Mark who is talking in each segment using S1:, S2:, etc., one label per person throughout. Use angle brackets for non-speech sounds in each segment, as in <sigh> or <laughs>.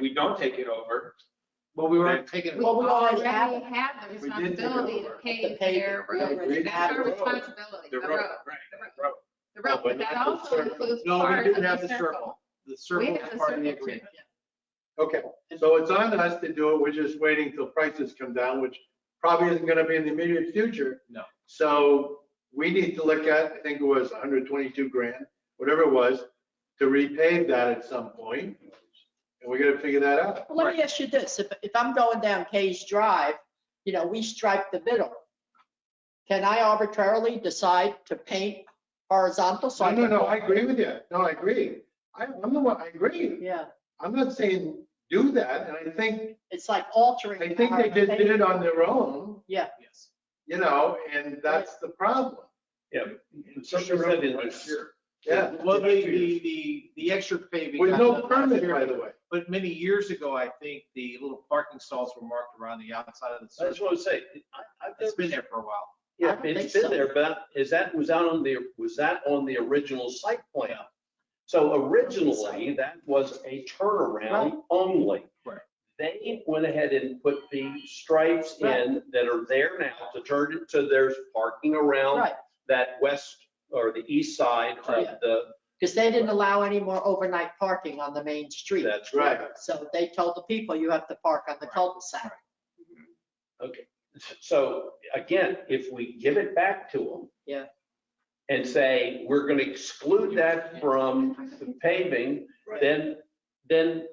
S1: we don't take it over,
S2: Well, we weren't taking.
S3: Well, we already have
S4: already have the
S1: We did take it
S4: responsibility to
S1: over.
S4: pay
S3: To pay
S4: their
S3: the
S4: road.
S1: road.
S4: That's our
S1: The road.
S4: responsibility,
S1: the
S4: the
S1: road,
S4: road,
S1: right,
S4: the road.
S1: the road.
S4: the road,
S2: No, but
S4: but that
S2: not the
S4: also
S2: circle.
S4: includes
S2: No,
S4: part
S2: we
S4: of
S2: do have
S4: the
S2: the
S4: circle.
S2: circle. The
S4: We
S2: circle
S4: have
S2: is
S4: the
S2: part of the
S4: circle too.
S2: agreement. Okay, so it's on us to do it. We're just waiting till prices come down, which probably isn't gonna be in the immediate future.
S1: No.
S2: So we need to look at, I think it was hundred twenty-two grand, whatever it was, to repave that at some point. And we're gonna figure that out.
S3: Well, Let me ask you this, if, if I'm going down Case Drive, you know, we stripe the middle. Can I arbitrarily decide to paint horizontal? so
S2: No, no,
S3: can-
S2: no, I agree with you. No, I agree. I, I'm the one, I agree.
S3: Yeah,
S2: I'm not saying do that, and I think,
S3: it's like altering.
S2: I think they just did it on their own,
S1: Yes.
S2: you know, and that's the problem.
S5: Somebody said it last year.
S2: Yeah,
S5: Well, the, the,
S1: the, the extra paving.
S2: with no permit, by the way.
S1: But many years ago, I think the little parking stalls were marked around the outside of the
S5: I just
S1: circle.
S5: want to say, I, I've
S1: It's
S5: never,
S1: been there for a while.
S3: I
S5: yeah,
S3: don't
S5: it's
S3: think
S5: been
S3: so.
S5: there, but is that, was that on the, was that on the original site plan? So originally, that was a
S3: Right.
S5: turnaround only.
S1: Right.
S5: They went ahead and put the stripes in that are there now to turn it, so there's parking around
S3: Right,
S5: that west or the east side of
S3: Yeah.
S5: the,
S3: because they didn't allow any more overnight parking on the main street.
S5: that's right.
S2: Right.
S3: So they told the people, you have to park on the
S1: Right,
S3: cul-de-sac.
S5: Okay, so again, if we give it back to them.
S3: Yeah.
S5: And say, we're gonna exclude that from the paving, then, then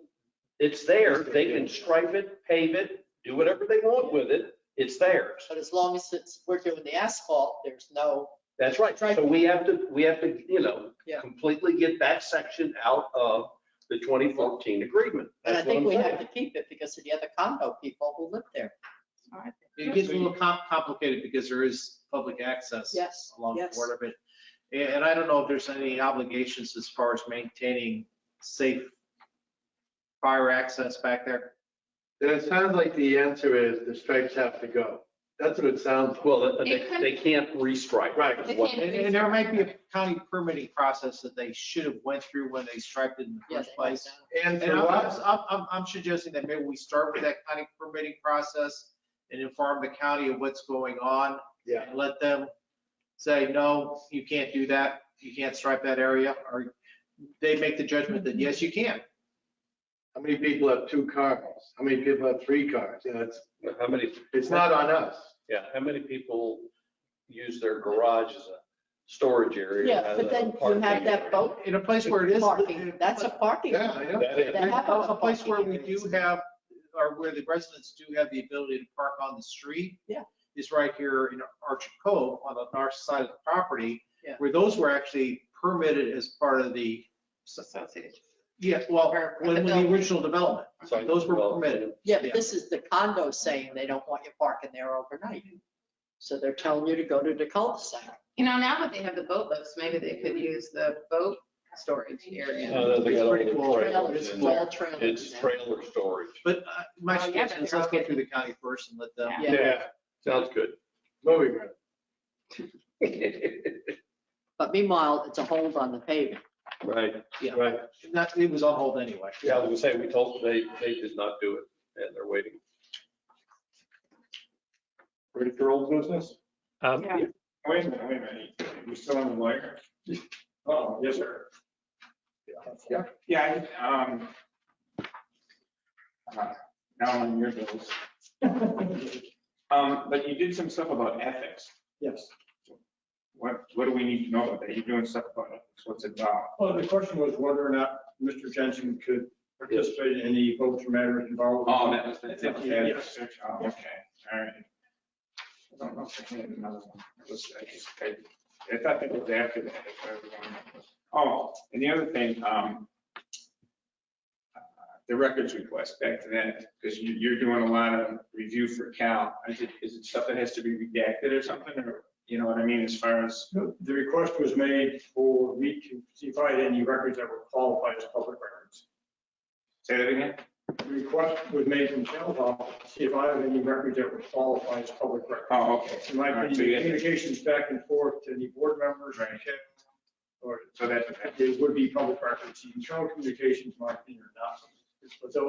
S5: it's there. They can stripe it, pave it, do whatever they want with it. It's theirs.
S3: But as long as it's, we're doing the asphalt, there's no,
S5: That's right. So we have to, we have to, you know,
S3: Yeah.
S5: completely get that section out of the 2014 agreement.
S3: and I
S5: That's what
S3: think
S5: I'm
S3: we have
S5: saying.
S3: to keep it because of the other condo people who live there.
S1: It gets a little com- complicated because there is public access.
S3: Yes,
S1: Along the
S3: yes.
S1: border, but, and and I don't know if there's any obligations as far as maintaining safe fire access back there.
S2: Then it sounds like the answer is the stripes have to go. That's what it sounds like.
S5: Well, they,
S4: It could-
S5: they can't restripe.
S2: Right.
S4: They
S5: What-
S4: can't.
S1: And, and there might be a county permitting process that they should have went through when they striped it in the
S3: Yeah,
S1: first
S3: they
S1: place.
S3: might not.
S2: And
S1: And
S2: for
S1: I'm, I'm,
S2: us,
S1: I'm- I'm, I'm suggesting that maybe we start with that county permitting process and inform the county of what's going on.
S2: Yeah.
S1: And let them say, no, you can't do that, you can't stripe that area, or they make the judgment that, yes, you can.
S2: how many people have two cars? How many people have three cars? You know, it's,
S5: How many
S2: it's not on us.
S5: Yeah, how many people use their garage as a storage area?
S3: Yeah,
S5: rather
S3: but
S5: than
S3: then you
S5: parking
S3: have that
S5: area?
S3: boat
S1: In a place where it is.
S3: Parking, that's a parking.
S2: Yeah, I know.
S5: That is-
S3: That
S1: A
S3: happens
S1: a
S3: on
S1: place where we
S3: parking
S1: do
S3: areas.
S1: have, or where the residents do have the ability to park on the street.
S3: Yeah.
S1: Is right here in Archer Cove on the north side of the property.
S3: Yeah.
S1: Where those were actually permitted as part of the, yeah, well,
S4: Or with
S1: when
S4: the
S1: when the
S4: building.
S1: original development.
S5: Sorry,
S1: Those were
S5: well,
S1: permitted.
S3: Yeah, but this is the condo saying they don't want you parking there overnight. So they're telling you to go to the cul-de-sac.
S4: You know, now that they have the boat lifts, maybe they could use the boat storage area.
S5: No, they got all the
S1: It's pretty cool.
S5: trailers
S3: Trailers,
S5: in there.
S3: all trailers.
S5: It's
S3: now.
S5: trailer storage.
S1: But uh, my
S4: Well, yeah,
S1: suggestion is
S4: but
S1: let's
S4: they're
S1: go through the county first and let them.
S4: Yeah.
S2: Yeah,
S5: Sounds good. <laughs>
S2: moving right.
S3: But meanwhile, it's a hold on the paving.
S5: Right,
S1: Yeah.
S5: right.
S1: Not, it was on hold anyway.
S5: Yeah, I was gonna say, we told them they, they did not do it and they're waiting.
S6: Ready for old business?
S7: Um,
S4: Yeah.
S6: Wait a minute, wait a minute. We still on the wire? Oh, yes, sir. Yeah, yeah, I, um. uh, Now on your bills. Um, but you did some stuff about ethics.
S8: Yes.
S6: What, what do we need to know about that? You're doing stuff about ethics. What's it about?
S8: Well, the question was whether or not Mr. Jensen could participate in any votes or matters involved.
S1: Oh,
S6: was the ethics.
S8: Yes.
S6: Oh, Okay, all right. I don't know if I had another one. It was- I just- I I thought that was after that. if I remember. Oh, and the other thing, um, the records request, back to that, because you, you're doing a lot of review for Cal. Is it, is it stuff that has to be redacted or something, or, you know what I mean, as far as,
S8: The request was made for me to see if I had any records that were qualified as public records.
S6: say that again?
S8: The request was made from town hall to see if I had any records that were qualified as public records.
S6: Oh, okay.
S8: In my
S6: All right, so
S8: opinion,
S6: you had to-
S8: communications back and forth to any board members.
S6: Right.
S8: Or
S6: So that's,
S8: it would be public records, internal communications, in my opinion, are not. But those